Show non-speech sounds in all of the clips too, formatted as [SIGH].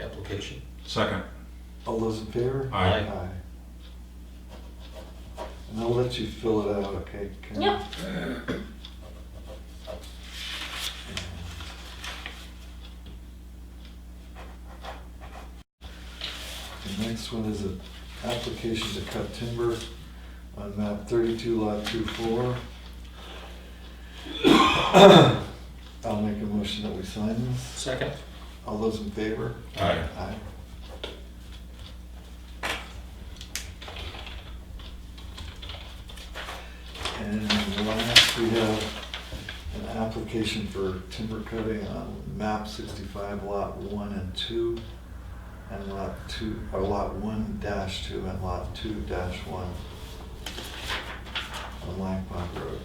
application. Second. All those in favor? Aye. Aye. And I'll let you fill it out, okay? Karen? Yep. The next one is an application to cut timber on map thirty-two lot two four. [COUGHS] I'll make a motion that we sign this. Second? All those in favor? Aye. Aye. And last, we have an application for timber cutting on map sixty-five lot one and two, and lot two, or lot one dash two and lot two dash one on Langbach Road.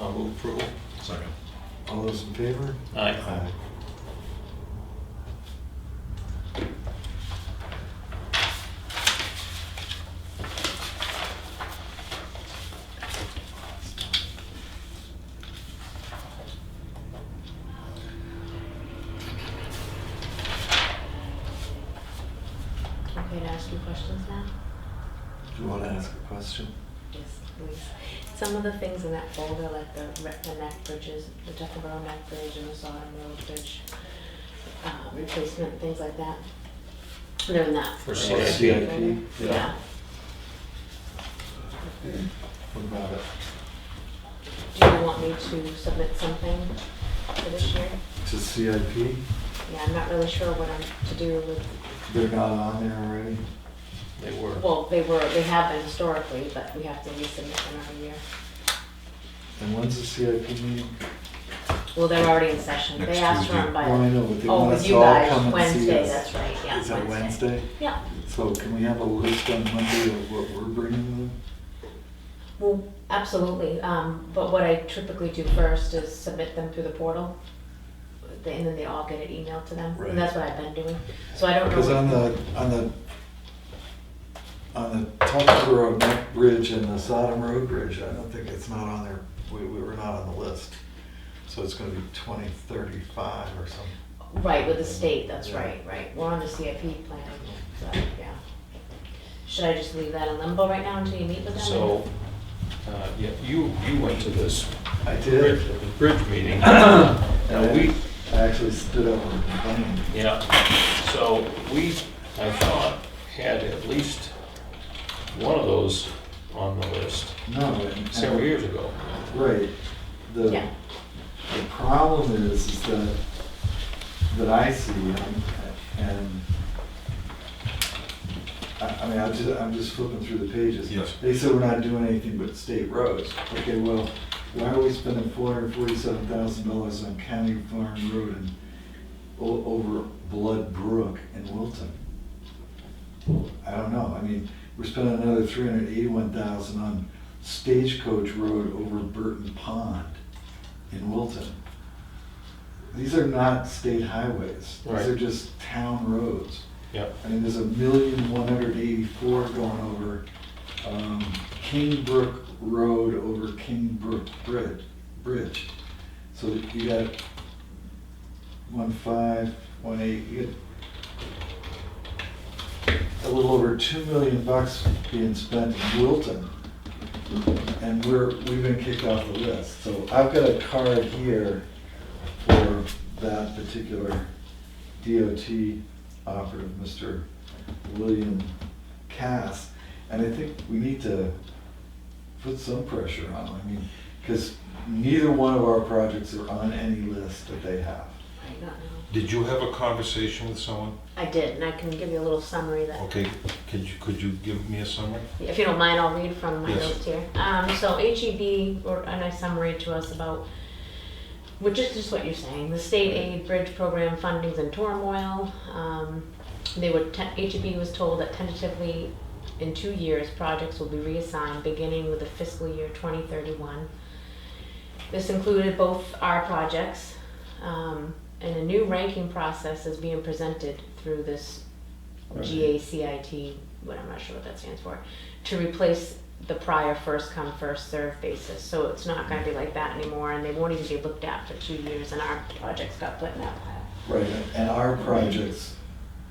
I'll move approval. Second. All those in favor? Aye. Okay to ask you questions now? Do you want to ask a question? Yes, please. Some of the things in that folder, like the, re- the neck bridges, the Duckleboro neck bridge and the Sodom Road Bridge, uh, replacement, things like that. They're in that. For folder. CIP. CIP, yeah. Yeah. What about it? Do you want me to submit something for this year? To CIP? Yeah, I'm not really sure what I'm to do with, They're not on there already? They were. well, they were, they have been historically, but we have to resubmit them every year. And when's the CIP meeting? Well, they're already in session. They Next asked for Tuesday. them by, Well, I know, but they oh, want with us you all guys, come and see Wednesday, us. that's right, yeah, Is it Wednesday? Yeah, So can we have a list on Monday of what we're bringing them? well, absolutely, um, but what I typically do first is submit them through the portal. th- And then they all get it emailed to them, Right. and that's what I've been doing, so I don't know. Because on the, on the, on the Tuckboro Neck Bridge and the Sodom Road Bridge, I don't think it's not on there. We, we were not on the list. So it's gonna be twenty thirty-five or something. Right, with the state, that's Yeah. right, right, we're on the CIP plan, so, yeah. Should I just leave that in limbo right now until you meet with them? So, uh, yeah, you, you went to this I bridge, did. bridge [COUGHS] meeting. Now, we, I actually stood up and complained. yeah, so we, I thought, had at least one of those on the list No. and- several years ago. Right. The, Yeah. the problem is, is that, that I see, and- and, I, I mean, I'm just, I'm just flipping through the pages. Yes. They said we're not doing anything but state roads. Okay, well, why are we spending four hundred forty-seven thousand dollars on County Farm Road and o- over Blood Brook in Wilton? I don't know, I mean, we're spending another three hundred eighty-one thousand on Stagecoach Road over Burton Pond in Wilton. These are not state highways, Right. these are just town roads. Yep. I mean, there's a million one hundred eighty-four going over, um, Kingbrook Road over Kingbrook Bridge, Bridge. So you got one five, one eight, you got a little over two million bucks being spent in Wilton. And we're, we've been kicked off the list, so I've got a card here for that particular DOT operative, Mr. William Cass. And I think we need to put some pressure on him, I mean, because neither one of our projects are on any list that they have. I don't know, Did you have a conversation with someone? I did, and I can give you a little summary that Okay, could you, could you give me a summary? If you don't mind, I'll read from my Yes. notes here. Um, so HEB wrote a nice summary to us about, which is just what you're saying, the state aid bridge program funding's in turmoil. Um, they were, te- HEB was told that tentatively in two years, projects will be reassigned beginning with the fiscal year twenty thirty-one. This included both our projects, um, and a new ranking process is being presented through this GACIT, what I'm not sure what that stands for, to replace the prior first come, first served basis. So it's not gonna be like that anymore, and they won't even be looked at for two years, and our projects got put in that pile. Right, and our projects